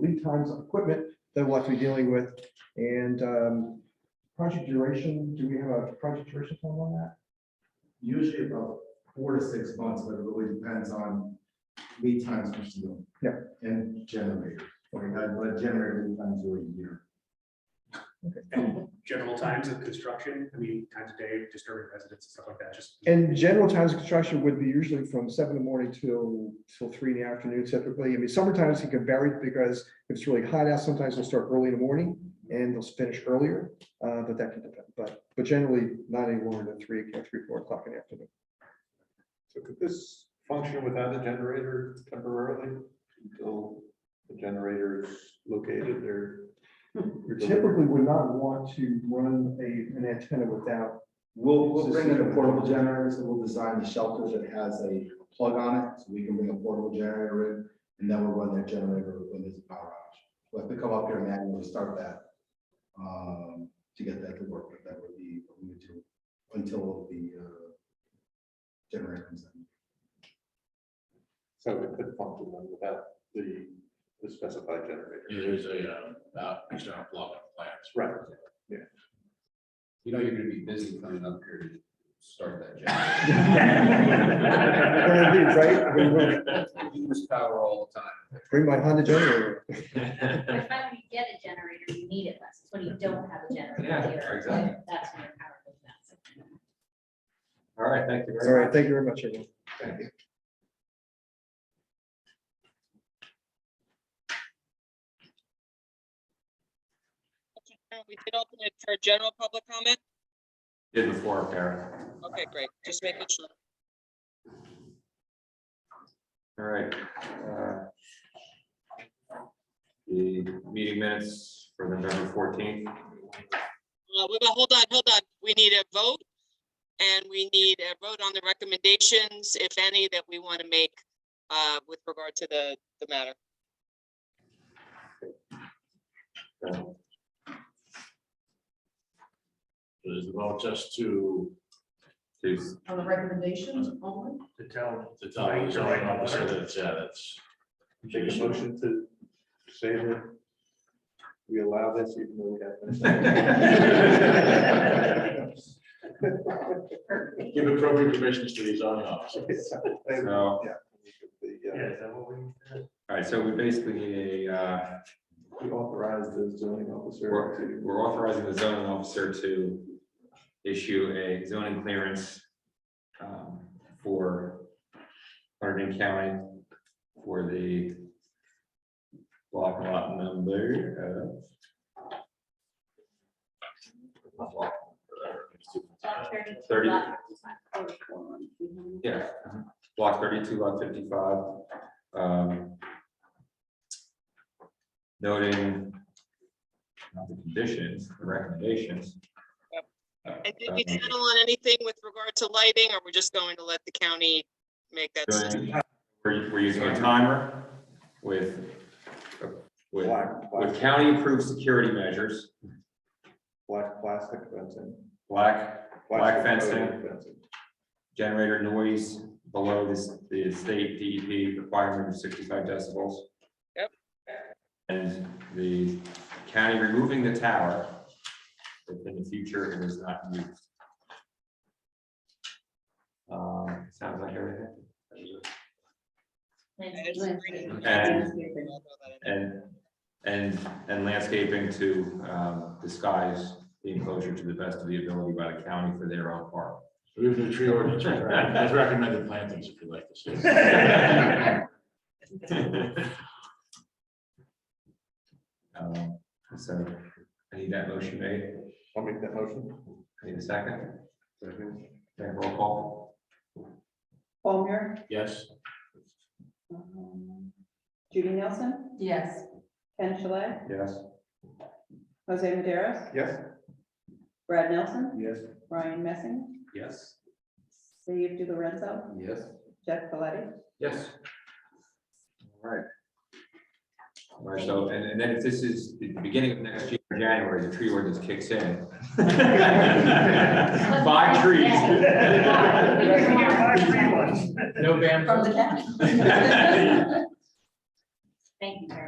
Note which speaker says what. Speaker 1: lead times of equipment that we'll have to be dealing with. And um, project duration, do we have a project duration time on that?
Speaker 2: Usually about four to six months, but it really depends on lead times for steel.
Speaker 1: Yeah.
Speaker 2: And generator. Like, I but generator lead times are a year.
Speaker 3: And general times of construction, I mean, times of day, disturbing residents and stuff like that, just.
Speaker 1: And general times of construction would be usually from seven in the morning till, till three in the afternoon typically. I mean, summertimes it can vary because if it's really hot out, sometimes they'll start early in the morning and they'll finish earlier, uh, but that can depend. But, but generally not any longer than three, three, four o'clock in the afternoon.
Speaker 4: So could this function without a generator temporarily until the generator is located or? Hmm.
Speaker 1: Typically would not want to run a, an antenna without,
Speaker 2: We'll, we'll bring in a portable generator, so we'll design the shelter that has a plug on it, so we can bring a portable generator in, and then we'll run that generator when there's a power outage. We'll have to come up here and manually start that, um, to get that to work, but that would be what we would do until the, uh, generator comes in.
Speaker 4: So it could function then without the, the specified generator.
Speaker 5: It is a, um, out- external plug and plants.
Speaker 4: Right.
Speaker 6: You know, you're gonna be busy coming up here to start that
Speaker 1: Gonna be, right? I mean, we'll
Speaker 6: job. You Use power all the time.
Speaker 1: bring my Honda generator.
Speaker 7: But if I were to get a generator, you need it less, it's when you don't have a generator.
Speaker 6: Yeah,
Speaker 7: here,
Speaker 6: exactly.
Speaker 7: that- That's when your power goes down.
Speaker 6: All right, thank you
Speaker 1: All
Speaker 6: very
Speaker 1: right,
Speaker 6: much.
Speaker 1: thank you very much, everyone.
Speaker 8: We did open it for general public comment.
Speaker 5: Did before, Karen.
Speaker 8: Okay, great. Just making sure.
Speaker 5: All right. uh, The meeting minutes for November fourteenth.
Speaker 8: Uh, wait, but hold on, hold on. We need a vote. And we need a vote on the recommendations, if any, that we want to make uh, with regard to the, the matter.
Speaker 5: Is about just to. To
Speaker 9: On the recommendations only?
Speaker 3: To tell.
Speaker 5: to tell the zoning officer that it's, yeah, that's.
Speaker 4: Take a motion to say that we allow this even though we have.
Speaker 5: Give appropriate permissions to the zoning officer.
Speaker 4: So,
Speaker 6: So,
Speaker 4: the, uh,
Speaker 3: Yeah, is that what we?
Speaker 6: all right, so we basically need a, uh,
Speaker 4: We authorize the zoning officer
Speaker 6: we're
Speaker 4: to.
Speaker 6: we're authorizing the zoning officer to issue a zoning clearance um, for Hardin County for the block lot number uh, of uh, Thirty. Yeah, block thirty-two, lot fifty-five. um, Noting not the conditions, the recommendations.
Speaker 8: And did we settle on anything with regard to lighting, or we're just going to let the county make that? decision?
Speaker 6: Doing- We're, we're using a timer with, with,
Speaker 4: Black, black,
Speaker 6: with county-approved security measures,
Speaker 4: black plastic fencing.
Speaker 6: black Black
Speaker 4: plastic
Speaker 6: fencing. generator noise below this, the state DEP requirement of sixty-five decibels.
Speaker 8: Yep.
Speaker 6: And the county removing the tower, if in the future it is not used. Um, sounds like everything. And, and, and landscaping to um, disguise the enclosure to the best of the ability by the county for their own part.
Speaker 5: We've been tree ordinance, as recommended plantings if you'd like to
Speaker 6: Um, So I need that motion made.
Speaker 4: I'll make that motion.
Speaker 6: I Need a second? Okay, roll call.
Speaker 9: Ballmer,
Speaker 5: Yes.
Speaker 9: Judy Nelson,
Speaker 7: Yes.
Speaker 9: Ken Shalay,
Speaker 6: Yes.
Speaker 9: Jose Maderos,
Speaker 4: Yes?
Speaker 9: Brad Nelson,
Speaker 4: Yes.
Speaker 9: Ryan Messing,
Speaker 6: Yes.
Speaker 9: Steve DiLorenzo,
Speaker 6: Yes.
Speaker 9: Jeff Paletti.
Speaker 6: Yes. All right. All right, so, and, and then if this is the beginning of next year, January, the tree ordinance kicks in. Buy
Speaker 3: Buy
Speaker 7: trees.
Speaker 3: ones.
Speaker 6: No ban.
Speaker 7: From the county.
Speaker 6: All
Speaker 7: Thank you
Speaker 6: Uh,
Speaker 7: very